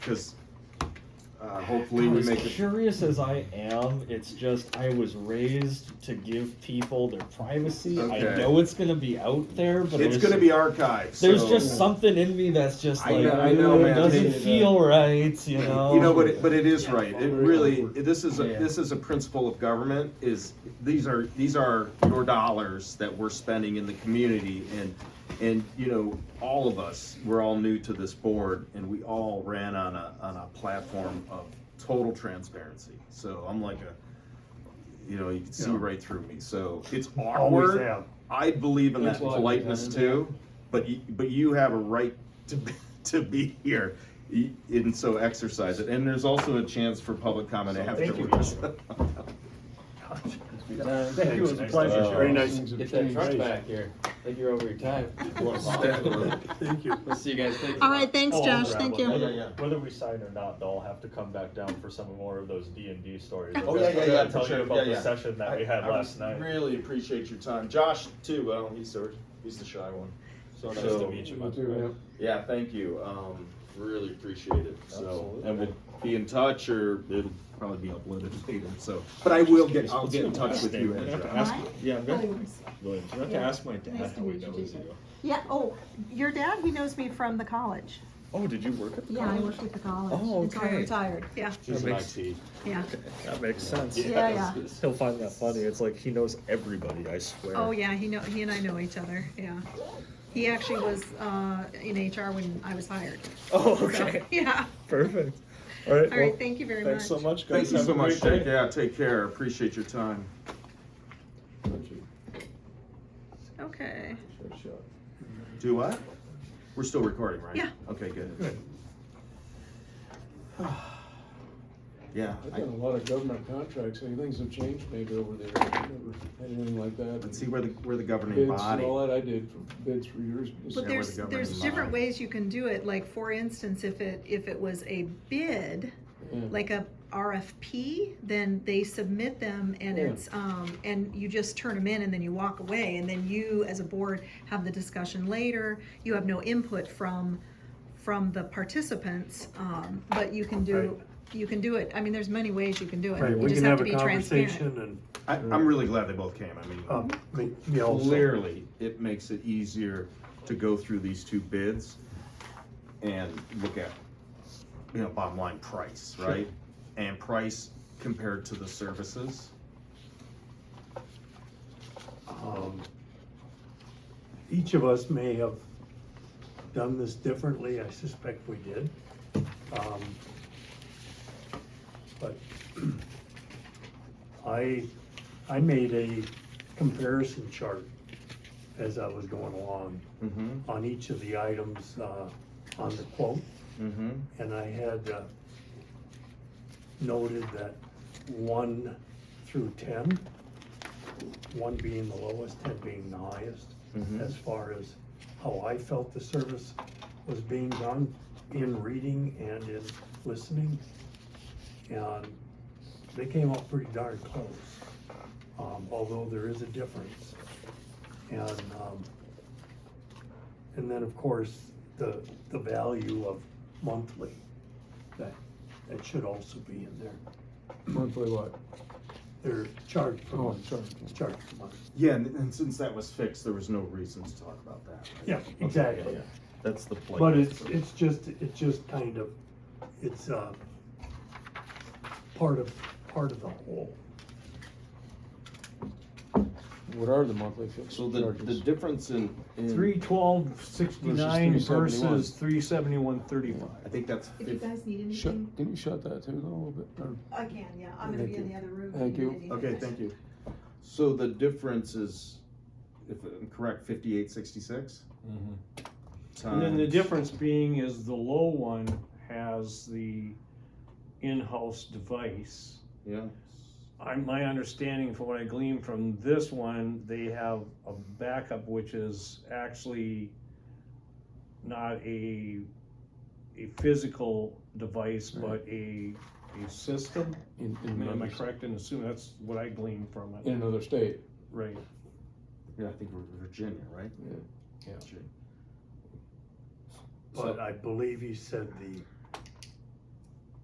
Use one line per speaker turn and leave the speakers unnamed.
because uh, hopefully we
as
make it.
curious as I am, it's just I was raised to give people their privacy. I
Okay.
know it's gonna be out there, but
It's
there's-
gonna be archived.
There's
so-
just something in me that's just
I
like
know- I know,
"Ooh, it
man.
doesn't
Yeah.
feel right, you know.
You know, but it, but it is right. It really this is a,
Yeah.
this is a principle of government. Is these are these are your dollars that we're spending in the community, and and you know all of us we're all new to this board, and we all ran on a on a platform of total transparency. So I'm like a you know you can see
Yeah.
right through me. So it's
Always
awkward.
have.
I believe in that
It's like-
politeness too, but you, but you have a right to be, to be here, y- and so exercise it. And there's also a chance for public comment
So thank you,
afterwards.
Uh, Thank you, it was a pleasure.
Thanks.
Very nice.
Get that truck back here. Thank you over your time.
Thank you.
We'll see you guys. Thank you.
All right, thanks,
Oh,
Josh,
I'll
thank
grab one.
you.
Yeah, yeah,
Whether we sign or not, they'll have to come back down for some more of those D and D stories.
Oh, yeah, yeah,
I'll
yeah, for
Tell
sure.
you
Yeah,
about
yeah.
the session that we had
I- I
last night.
Really appreciate your time, Josh too. Well, he's the he's the shy one.
So nice
So-
to meet you. my friend.
Yeah, thank you. Um, really appreciate it. So,
Absolutely.
and we'll be in touch, or it'll probably be uploaded later. So, but I will get I'll get in touch with you,
I'm gonna have to
Ezra.
ask-
Mine?
Yeah, I'm
Oh,
gonna,
yours.
go ahead. I'm gonna have to
Yeah.
ask my dad
Nice to
how he
meet you,
knows
Jason.
you.
Yeah, oh, your dad, he knows me from the college.
Oh, did you work at the
Yeah, I
college?
worked with the college.
Oh,
Until I
okay.
retired, yeah,
She's an
makes-
IT.
yeah,
That makes sense.
yeah, yeah.
He'll find that funny. It's like he knows everybody. I swear.
Oh, yeah, he know, he and I know each other, yeah. He actually was, uh, in HR when I was hired.
Oh,
So,
okay.
Yeah,
Perfect. All right.
all right,
well,
thank you very much.
thanks so much,
Thank
guys.
you
Have
so
a
much.
great day.
Jake. Yeah, take care. Appreciate your time.
Okay,
Do what? We're still recording, right?
Yeah.
Okay, good.
Good.
Yeah,
I've
I
done a lot of government contracts, and things have changed maybe over the years, I've never had anything like that.
can see where the, where the
Bids
governing
and
body.
all that, I did for bids for years.
but
where
there's,
the
there's
government
different
lies.
ways you can do it, like, for instance, if it, if it was a bid,
Yeah.
like a RFP, then they submit them and
Yeah.
it's, um, and you just turn them in and then you walk away. And then you, as a board, have the discussion later. You have no input from, from the participants, um, but you can do, you can do it. I mean, there's many ways you can do it.
Right,
You
we
just
can
have
have
to
a
be transparent.
conversation and,
I, I'm really glad they both came. I
um,
mean,
me- me also.
clearly, it makes it easier to go through these two bids and look at, you know, bottom line price, right? And price compared to the services.
Um, Each of us may have done this differently, I suspect we did. Um, But I, I made a comparison chart as I was going along
Mm-hmm,
on each of the items, uh, on the quote.
mm-hmm.
And I had uh, noted that one through ten, one being the lowest, ten being the highest,
Mhm.
as far as how I felt the service was being done in reading and in listening. And they came up pretty darn close, um, although there is a difference. And, um, and then, of course, the, the value of monthly, that, that should also be in there.
Monthly what?
They're charged per
Oh,
month,
charged.
charged per month.
Yeah, and, and since that was fixed, there was no reason to talk about that. right?
Yeah,
Okay,
exactly.
yeah, yeah. That's the play.
But it's, it's just, it's just kind of, it's, uh, part of, part of the whole.
What are the monthly fixed
So the, the
charges?
difference in, in.
Three twelve sixty-nine
Versus 371.
versus three seventy-one thirty-five.
I think that's.
If you guys need anything,
Shut, can you shut that too though, a little bit? Or-
I can, yeah. I'm gonna
Thank
be in
you.
the other room. if
Thank
need
you.
anything.
Okay, thank you. So the difference is, if I'm correct, fifty-eight sixty-six?
And then the difference being is the low one has the in-house device.
Yeah,
I, my understanding from what I gleaned from this one, they have a backup which is actually not a, a physical device, but a, a system.
In,
I
in
mean, Am I
another,
correct in assuming that's what I gleaned from
in
it?
another state.
Right.
yeah, I think we're Virginia, right?
Yeah.
Virginia.
But I believe he said the